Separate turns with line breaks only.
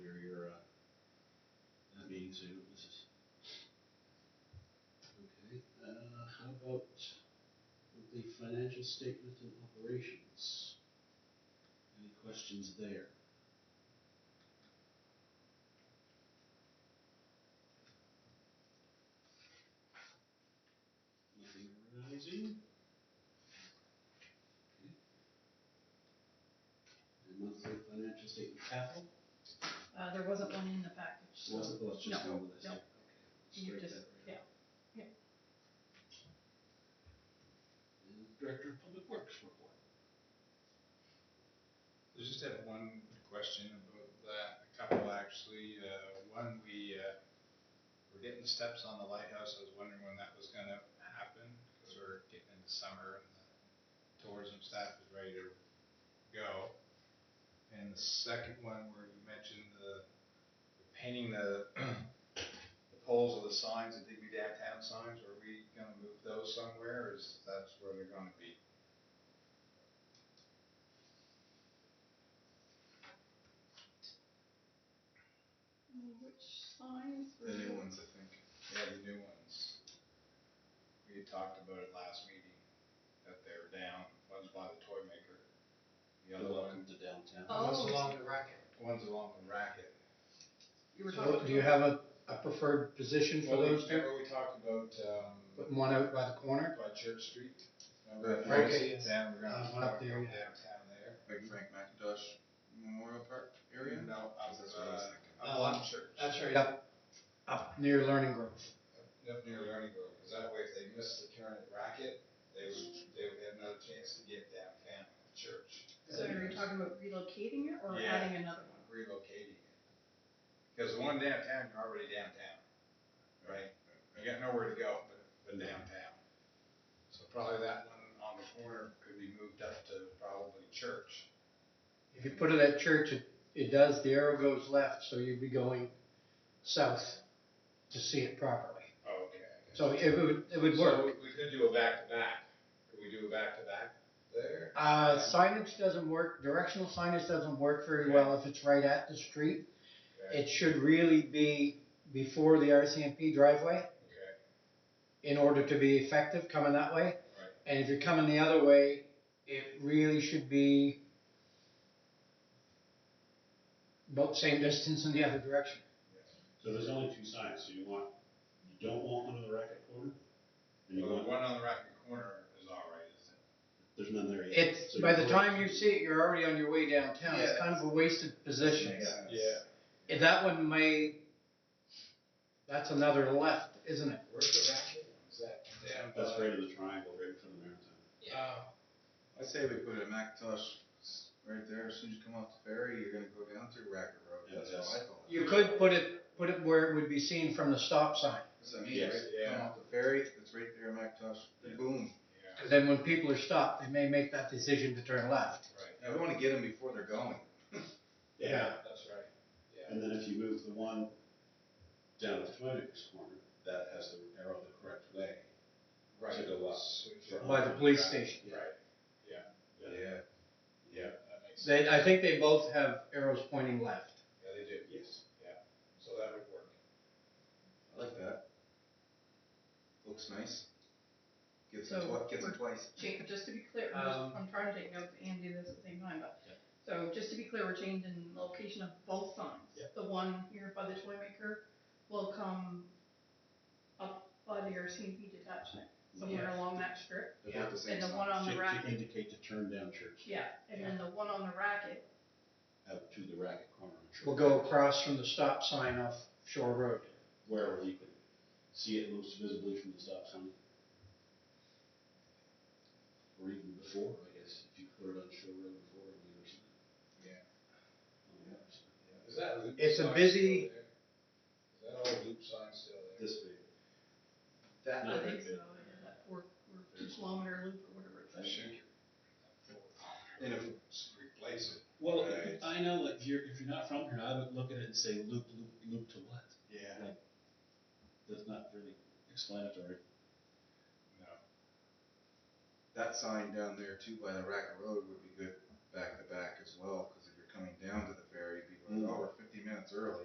uh, uh, financial statement and operations. Any questions there? Nothing rising? Okay. And monthly financial statement capital,
Uh, there wasn't one in the package, so.
was it, let's just go with this.
No, no.
Okay.
You
Strike
just,
that right
yeah,
out. And Director of Public Works report.
I just have one question about that, a couple actually. Uh, One, we, uh, we're getting steps on the lighthouse. I was wondering when that was gonna happen, because we're getting into summer and the tourism staff is ready to go. And the second one, where you mentioned the the painting the, the poles of the signs, the Digby downtown signs, are we gonna move those somewhere, or is that's where they're gonna be?
Mm, which signs were?
The new ones, I think. Yeah, the new ones. We had talked about it last meeting, that they were down, one's by the toy maker. The other
Welcome
one,
to downtown.
one's
Oh,
along the racket. One's along the racket.
you were talking
So
about.
do you have a, a preferred position for
Well,
those two?
remember we talked about, um,
Putting one out by the corner?
by Church Street?
Right,
Remember?
okay, yes.
Down, we're
Uh,
gonna.
one up there, yeah.
Downtown there.
Like Frank McIntosh Memorial Park area?
No, up,
That's what I was
uh,
thinking.
up on Church.
right. Up, up near Learning Grove.
up near Learning Grove, because that way if they missed the turn at Racket, they would, they would have another chance to get downtown at Church.
So are you talking about relocating it or
Yeah.
adding another one?
relocating it. Because the one downtown, you're already downtown, right? You got nowhere to go but, but downtown. So probably that one on the corner could be moved up to probably Church.
If you put it at church, it, it does, the arrow goes left, so you'd be going south to see it properly.
Okay.
So it would, it would
So
work.
we- we could do a back-to-back. Could we do a back-to-back there?
Uh, signage doesn't work, directional signage doesn't work very well if it's right at the street.
Okay.
It should really be before the RCMP driveway
Okay,
in order to be effective coming that way.
right.
And if you're coming the other way, it really should be about the same distance in the other direction.
So there's only two signs, so you want, you don't want one on the racket corner? And you
Well, the
want,
one on the Racket corner is all right, isn't it?
there's none there yet.
It's,
So
by the
you're
time you
correct.
see it, you're already on your way downtown. It's kind of a wasted position.
Yeah.
If That one may, that's another left, isn't it?
Where's the Racket? Is that down?
That's
by-
right in the triangle, right in front of Maritime.
Oh,
I say we put it at McIntosh s- right there, as soon as you come off the ferry, you're gonna go down through Racket Road,
Yeah,
that's
that's-
how I thought.
You could put it, put it where it would be seen from the stop sign.
That's what I mean,
Yes,
right,
yeah.
come off the ferry, it's right there, McIntosh,
Yeah.
boom.
yeah,
Because then when people are stopped, they may make that decision to turn left.
right.
I wanna get them before they're going.
Yeah, that's right. Yeah.
And then if you move the one down the Twinings corner, that has the arrow the correct way.
Right.
To go up.
Switch
By the police
around.
station.
Right, yeah,
Yeah.
Yeah,
that makes sense.
They, I think they both have arrows pointing left.
Yeah, they do,
yes.
so that would work.
I like that. Looks nice. Gives
So,
them twi- gives them
we're-
twice.
Jake, just to be clear, I'm, just-
Um,
I'm trying to take notes and do this at the same time, but,
Yeah.
so just to be clear, we're changing location of both signs.
Yeah.
The one here by the toy maker will come up by the RCMP detachment, somewhere along that strip.
They look the same
And the
size.
one on
To-
the
To
racket,
indicate to turn down church,
yeah, and then the one on the racket,
out to the racket corner. of Church.
We'll go across from the stop sign off Shore Road.
Wherever you can see it most visibly from the stop sign. Or even before, I guess, if you put it on Shore Road before on the other side.
Yeah.
On the other side.
Is that loop
It's a
sign still
busy-
there? Is that old loop sign still there?
This big.
That
I
Yeah,
think
right
so,
there.
yeah, that four, or two kilometer loop or whatever it's.
I think-
And if we replace it.
Well,
Right.
I know, like, if you're, if you're not from here, I would look at it and say, loop, loop, loop to what?
Yeah.
That's not really explanatory.
No,
that sign down there too by the Racket Road would be good back to back as well, because if you're coming down to the ferry, people are like, oh, we're fifty minutes early.